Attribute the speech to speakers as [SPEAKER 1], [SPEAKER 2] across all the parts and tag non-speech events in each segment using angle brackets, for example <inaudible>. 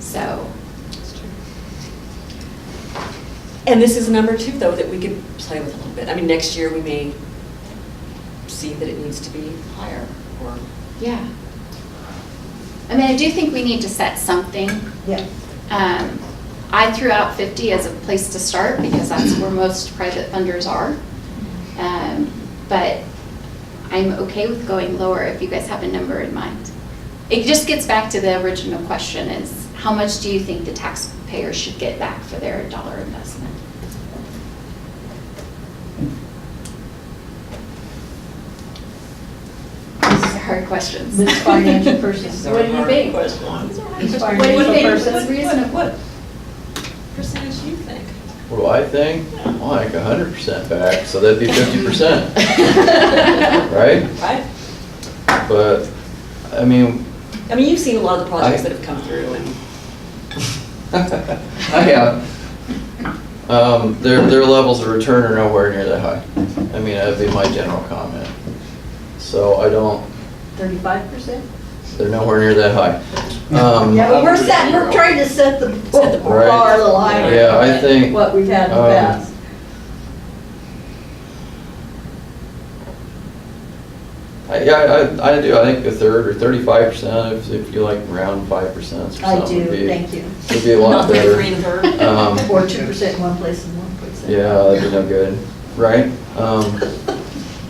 [SPEAKER 1] So,
[SPEAKER 2] And this is a number two, though, that we could play with a little bit. I mean, next year, we may see that it needs to be higher, or,
[SPEAKER 1] yeah. I mean, I do think we need to set something.
[SPEAKER 3] Yeah.
[SPEAKER 1] Um, I threw out 50 as a place to start because that's where most private funders are. Um, But I'm okay with going lower if you guys have a number in mind. It just gets back to the original question is, how much do you think the taxpayer should get back for their dollar investment? These are hard questions.
[SPEAKER 3] This financial
[SPEAKER 1] <laughs>
[SPEAKER 3] person.
[SPEAKER 2] These are
[SPEAKER 3] What do you
[SPEAKER 2] hard
[SPEAKER 3] think?
[SPEAKER 2] questions.
[SPEAKER 3] This
[SPEAKER 1] What do
[SPEAKER 3] financial
[SPEAKER 1] you think
[SPEAKER 3] person.
[SPEAKER 1] was reasonable?
[SPEAKER 2] What percentage do you think?
[SPEAKER 4] What do I think? I like a hundred percent back, so that'd be fifty
[SPEAKER 3] <laughs>
[SPEAKER 4] percent, right?
[SPEAKER 2] Right?
[SPEAKER 4] But, I mean, <laughs>
[SPEAKER 2] I mean, you've seen a lot of the projects
[SPEAKER 4] I-
[SPEAKER 2] that have come through, and
[SPEAKER 4] I have, um, their, their levels of return are nowhere near that high. I mean, that'd be my general comment. So I don't,
[SPEAKER 3] Thirty-five percent?
[SPEAKER 4] they're nowhere near that high. Um,
[SPEAKER 3] Yeah, but we're set, we're trying to set the bar a little higher.
[SPEAKER 4] Yeah, I think-
[SPEAKER 3] than What we've had in the
[SPEAKER 4] um,
[SPEAKER 3] past.
[SPEAKER 4] I- Yeah, I, I do, I think a third or thirty-five percent, if, if you like round five percent or
[SPEAKER 3] I
[SPEAKER 4] something.
[SPEAKER 3] do,
[SPEAKER 4] would be-
[SPEAKER 3] thank you.
[SPEAKER 4] Would be a lot
[SPEAKER 2] not the
[SPEAKER 4] better.
[SPEAKER 2] three and a third.
[SPEAKER 4] Um,
[SPEAKER 3] Or two percent in one place and one place. in
[SPEAKER 4] Yeah, that'd be no good, right? Um,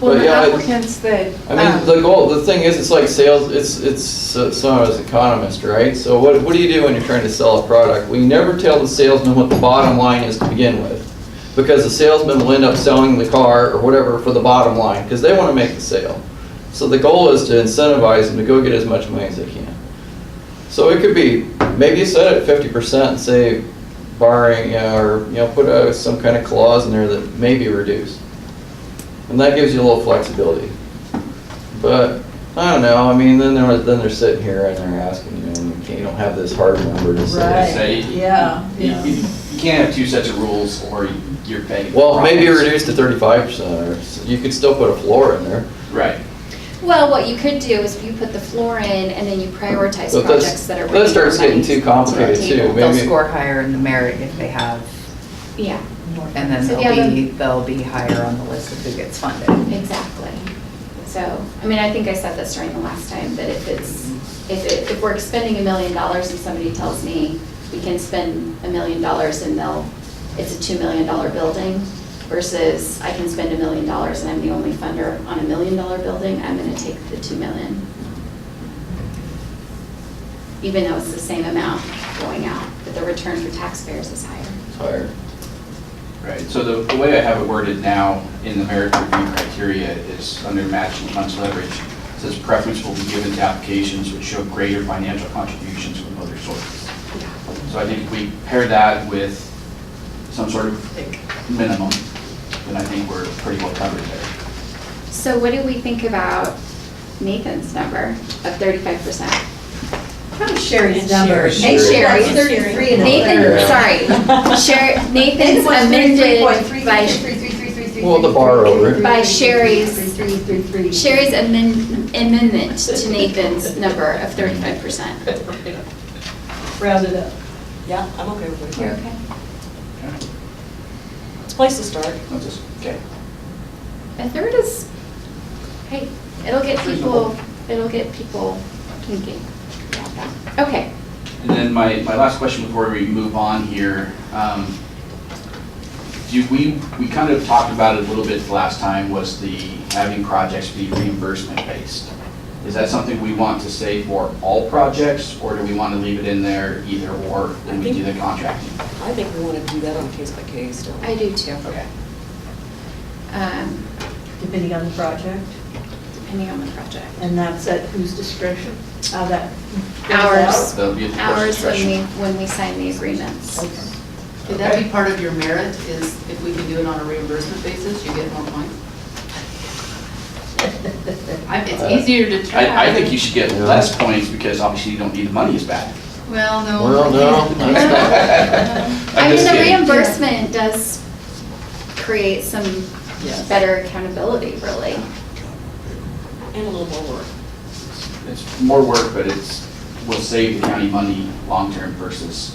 [SPEAKER 5] Well,
[SPEAKER 4] But
[SPEAKER 5] the
[SPEAKER 4] yeah, I-
[SPEAKER 5] applicants that.
[SPEAKER 4] I mean,
[SPEAKER 5] um,
[SPEAKER 4] the goal, the thing is, it's like sales, it's, it's, so so I was an economist, right? So what, what do you do when you're trying to sell a product? We never tell the salesman what the bottom line is to begin with. Because the salesman will end up selling the car or whatever for the bottom line, because they want to make the sale. So the goal is to incentivize them to go get as much money as they can. So it could be, maybe you set it at fifty percent and say barring, you know, or, you know, put uh, some kind of clause in there that may be reduced. And that gives you a little flexibility. But, I don't know, I mean, then they're, then they're sitting here and they're asking, you know, you can't- you don't have this hard number to
[SPEAKER 3] Right.
[SPEAKER 4] say.
[SPEAKER 6] Say, you-
[SPEAKER 3] Yeah,
[SPEAKER 6] You
[SPEAKER 3] yeah.
[SPEAKER 6] you- you can't have two sets of rules or you're paying.
[SPEAKER 4] Well, maybe
[SPEAKER 6] problems.
[SPEAKER 4] reduced to thirty-five percent, or, s- you could still put a floor in there.
[SPEAKER 6] Right.
[SPEAKER 1] Well, what you could do is you put the floor in and then you prioritize
[SPEAKER 4] But that's-
[SPEAKER 1] projects that are.
[SPEAKER 4] that
[SPEAKER 1] bringing
[SPEAKER 4] starts
[SPEAKER 1] more money
[SPEAKER 4] getting too
[SPEAKER 1] to the
[SPEAKER 4] complicated, too.
[SPEAKER 1] table.
[SPEAKER 5] They'll
[SPEAKER 4] maybe-
[SPEAKER 5] score higher in the merit if they have,
[SPEAKER 1] Yeah,
[SPEAKER 3] More-
[SPEAKER 5] and then
[SPEAKER 1] So yeah,
[SPEAKER 5] they'll be, they'll be higher on the list of who gets funded.
[SPEAKER 1] exactly. So, I mean, I think I said this during the last time, that if it's, if it, if we're spending a million dollars and somebody tells me we can spend a million dollars and they'll, it's a two million dollar building versus I can spend a million dollars and I'm the only funder on a million dollar building, I'm gonna take the two million. Even though it's the same amount going out, but the return for taxpayers is higher.
[SPEAKER 4] Higher.
[SPEAKER 6] Right, so the, the way I have it worded now in the merit review criteria is under matching funds leverage, it says preference will be given to applications which show greater financial contributions from other sources. So I think if we pair that with some sort of minimum, then I think we're pretty well covered there.
[SPEAKER 1] So what do we think about Nathan's number of thirty-five percent?
[SPEAKER 3] Probably Sherry's number.
[SPEAKER 4] Sherry. And
[SPEAKER 1] Sherry's.
[SPEAKER 3] That's Thirty-three and a
[SPEAKER 1] Nathan,
[SPEAKER 3] third.
[SPEAKER 1] sorry, Sher, Nathan's
[SPEAKER 3] Nathan was
[SPEAKER 1] amended
[SPEAKER 3] 33.3,
[SPEAKER 1] by,
[SPEAKER 3] 33.3,
[SPEAKER 4] Well, the bar over it.
[SPEAKER 1] By Sherry's-
[SPEAKER 3] 33.3.
[SPEAKER 1] Sherry's amend- amendment to Nathan's number of thirty-five percent.
[SPEAKER 3] Round it up.
[SPEAKER 2] Yeah, I'm okay with
[SPEAKER 1] You're
[SPEAKER 2] it.
[SPEAKER 1] okay?
[SPEAKER 6] Okay.
[SPEAKER 2] It's a place to start.
[SPEAKER 6] That's just, okay.
[SPEAKER 1] A third is, hey, it'll get people, it'll get people thinking about that. Okay,
[SPEAKER 6] And then my, my last question before we move on here, um, do we, we kind of talked about it a little bit last time, was the having projects be reimbursement based. Is that something we want to say for all projects, or do we want to leave it in there either or when we do the contracting?
[SPEAKER 2] I think we want to do that on case by case, don't we?
[SPEAKER 1] I do too,
[SPEAKER 6] Okay.
[SPEAKER 1] um,
[SPEAKER 3] Depending on the project,
[SPEAKER 1] depending on the project.
[SPEAKER 3] and that's at whose discretion, how that. goes
[SPEAKER 1] Ours.
[SPEAKER 3] out.
[SPEAKER 6] That'll be at the board's
[SPEAKER 1] Hours when
[SPEAKER 6] discretion.
[SPEAKER 1] we, when we sign the agreements.
[SPEAKER 3] Okay.
[SPEAKER 7] Could that be part of your merit, is if we can do it on a reimbursement basis, you get more points? I- It's easier to track.
[SPEAKER 6] I, I think you should get
[SPEAKER 4] Yeah.
[SPEAKER 6] less points because obviously you don't need the money as bad.
[SPEAKER 7] Well, no.
[SPEAKER 4] Well, no,
[SPEAKER 6] <laughs>
[SPEAKER 4] that's
[SPEAKER 1] I
[SPEAKER 6] I'm
[SPEAKER 1] mean,
[SPEAKER 6] just
[SPEAKER 1] the
[SPEAKER 6] kidding.
[SPEAKER 1] reimbursement does create some
[SPEAKER 7] Yes.
[SPEAKER 1] better accountability, really.
[SPEAKER 2] And a little more work.
[SPEAKER 6] It's more work, but it's will save the county money long-term versus